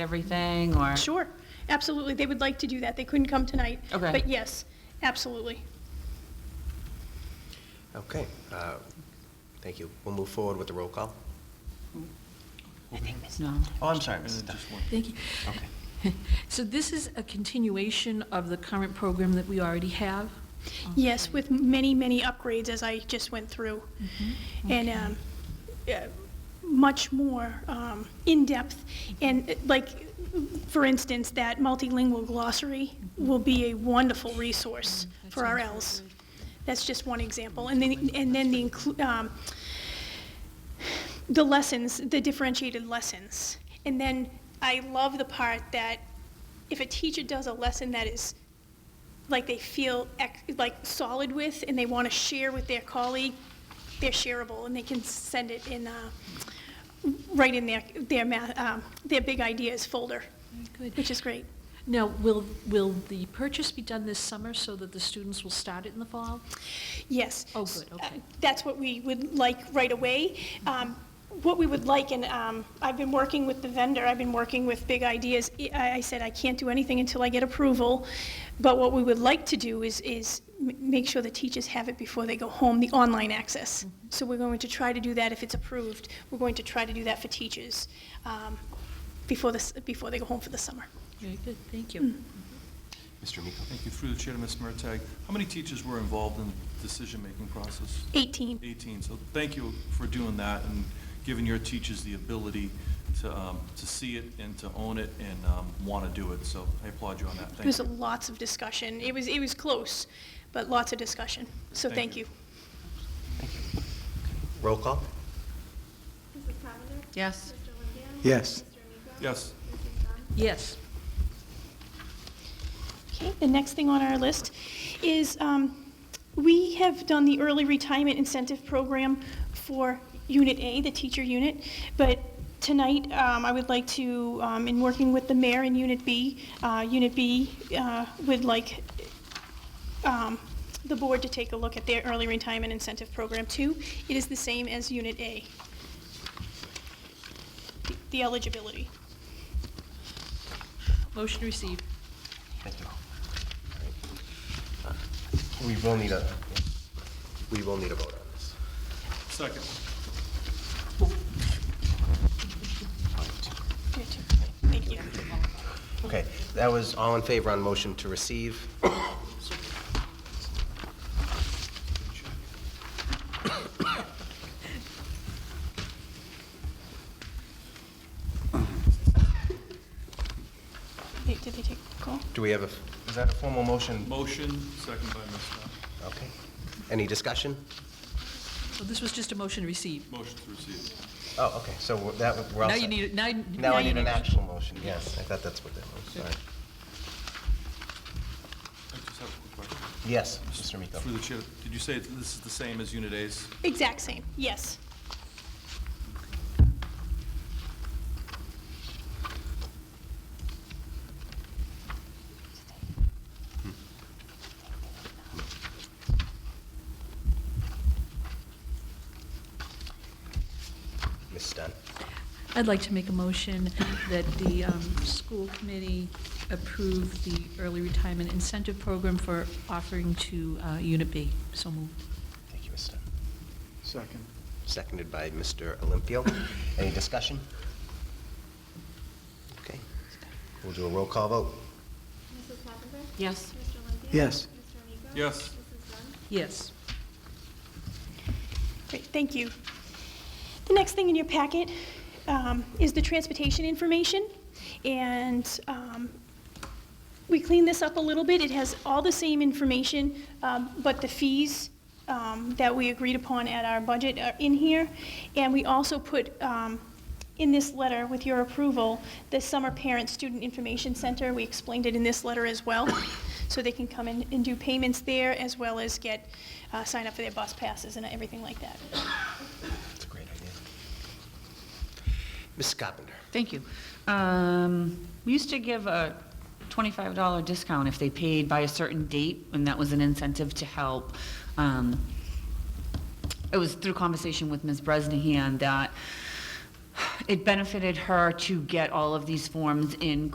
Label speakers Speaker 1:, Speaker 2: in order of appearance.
Speaker 1: everything, or?
Speaker 2: Sure, absolutely. They would like to do that. They couldn't come tonight.
Speaker 1: Okay.
Speaker 2: But yes, absolutely.
Speaker 3: Okay, uh, thank you. We'll move forward with the roll call.
Speaker 1: No.
Speaker 3: Oh, I'm sorry, Mrs. Duff.
Speaker 4: Thank you.
Speaker 3: Okay.
Speaker 4: So this is a continuation of the current program that we already have?
Speaker 2: Yes, with many, many upgrades as I just went through. And um, uh, much more um, in-depth. And uh, like, for instance, that multilingual glossary will be a wonderful resource for our Ls. That's just one example. And then, and then the, inclu- um, the lessons, the differentiated lessons. And then I love the part that if a teacher does a lesson that is like they feel ec- like solid with and they want to share with their colleague, they're shareable and they can send it in, uh, right in their, their math, um, their big ideas folder,
Speaker 4: Good.
Speaker 2: which is great.
Speaker 4: Now, will, will the purchase be done this summer so that the students will start it in the fall?
Speaker 2: Yes.
Speaker 4: Oh, good, okay.
Speaker 2: Uh, That's what we would like right away. Um, What we would like, and um, I've been working with the vendor, I've been working with Big Ideas. I I said I can't do anything until I get approval, but what we would like to do is, is m- make sure the teachers have it before they go home, the online access.
Speaker 4: Mm-hmm.
Speaker 2: So we're going to try to do that if it's approved. We're going to try to do that for teachers um, before this, before they go home for the summer.
Speaker 4: Very good, thank you.
Speaker 3: Mr. Miko.
Speaker 5: Thank you. Through the chair to Ms. Mertag. How many teachers were involved in the decision-making process?
Speaker 2: 18.
Speaker 5: 18. So thank you for doing that and giving your teachers the ability to, um, to see it and to own it and want to do it. So I applaud you on that.
Speaker 2: There was
Speaker 5: Thank you.
Speaker 2: lots of discussion. It was, it was close, but lots of discussion. So
Speaker 5: Thank
Speaker 2: thank
Speaker 5: you.
Speaker 2: you.
Speaker 3: Roll call?
Speaker 6: Mrs. Cavender?
Speaker 1: Yes.
Speaker 6: Mr. Lindahl? Mr.
Speaker 7: Yes.
Speaker 6: Amico?
Speaker 5: Yes.
Speaker 6: Mrs. Dunn?
Speaker 4: Yes,
Speaker 2: Okay, the next thing on our list is, um, we have done the early retirement incentive program for Unit A, the teacher unit, but tonight, um, I would like to, um, in working with the mayor in Unit B, uh, Unit B, uh, would like, um, the board to take a look at their early retirement incentive program too. It is the same as Unit A. The- The eligibility.
Speaker 4: motion received.
Speaker 3: Thank you. All right. Uh, We will need a, we will need a vote on this.
Speaker 5: Second.
Speaker 2: Thank you.
Speaker 3: Okay, that was all in favor on motion to receive.
Speaker 2: They- Did they take a call?
Speaker 3: Do we have a, is that a formal motion?
Speaker 5: Motion, second by Ms. Dunn.
Speaker 3: Okay. Any discussion?
Speaker 4: So Oh, this was just a motion received.
Speaker 5: Motion to receive.
Speaker 3: Oh, okay, so that, we're all
Speaker 4: Now you
Speaker 3: set.
Speaker 4: need, now.
Speaker 3: Now I
Speaker 4: you
Speaker 3: need an
Speaker 4: a motion.
Speaker 3: actual motion, yes. I thought that's what that was, sorry.
Speaker 5: I just have a quick question.
Speaker 3: Yes, Mr. Miko.
Speaker 5: Through the chair, did you say this is the same as Unit A's?
Speaker 2: Exact same, yes.
Speaker 3: Ms. Dunn.
Speaker 4: I'd like to make a motion that the um, school committee approve the early retirement incentive program for offering to uh, Unit B. So moved.
Speaker 3: Thank you, Ms. Dunn.
Speaker 7: Second.
Speaker 3: Seconded by Mr. Olympio. Any discussion? Okay, we'll do a roll call vote.
Speaker 6: Mrs. Cavender?
Speaker 1: Yes.
Speaker 6: Mr. Lindahl?
Speaker 7: Yes.
Speaker 6: Mr. Amico?
Speaker 5: Yes.
Speaker 6: Mrs. Dunn?
Speaker 4: Yes.
Speaker 2: Great, thank you. The next thing in your packet um, is the transportation information, and um, we cleaned this up a little bit. It has all the same information, um, but the fees um, that we agreed upon at our budget are in here. And we also put um, in this letter, with your approval, the Summer Parent Student Information Center. We explained it in this letter as well, so they can come in and do payments there, as well as get, uh, sign up for their bus passes and everything like that.
Speaker 3: That's a great idea. Ms. Carpenter.
Speaker 1: Thank you. Um, We used to give a $25 discount if they paid by a certain date, and that was an incentive to help. Um, It was through conversation with Ms. Bresnahan that it benefited her to get all of these forms in